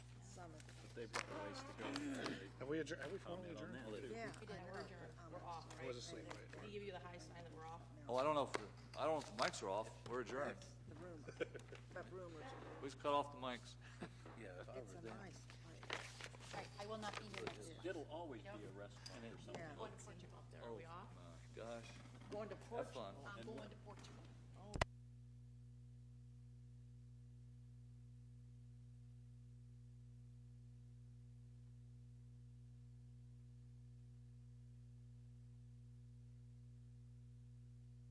they've got a ways to go. Have we adjourned, have we Found formally out on adjourned? that. Yeah. We didn't, we're adjourned, we're off, right? was asleep, right. We give you the high sign that we're off. Well, I don't know if, the- I don't know if the mics are off. We're adjourned. The room, the room was, Please cut off the mics. Yeah. it's a nice place. Right, I will not be here next month. It'll always be a restaurant or something. Yeah. Oh. Going to Portugal up there, are we off? Um, My gosh. Going to Have fun. I'm going to Portugal.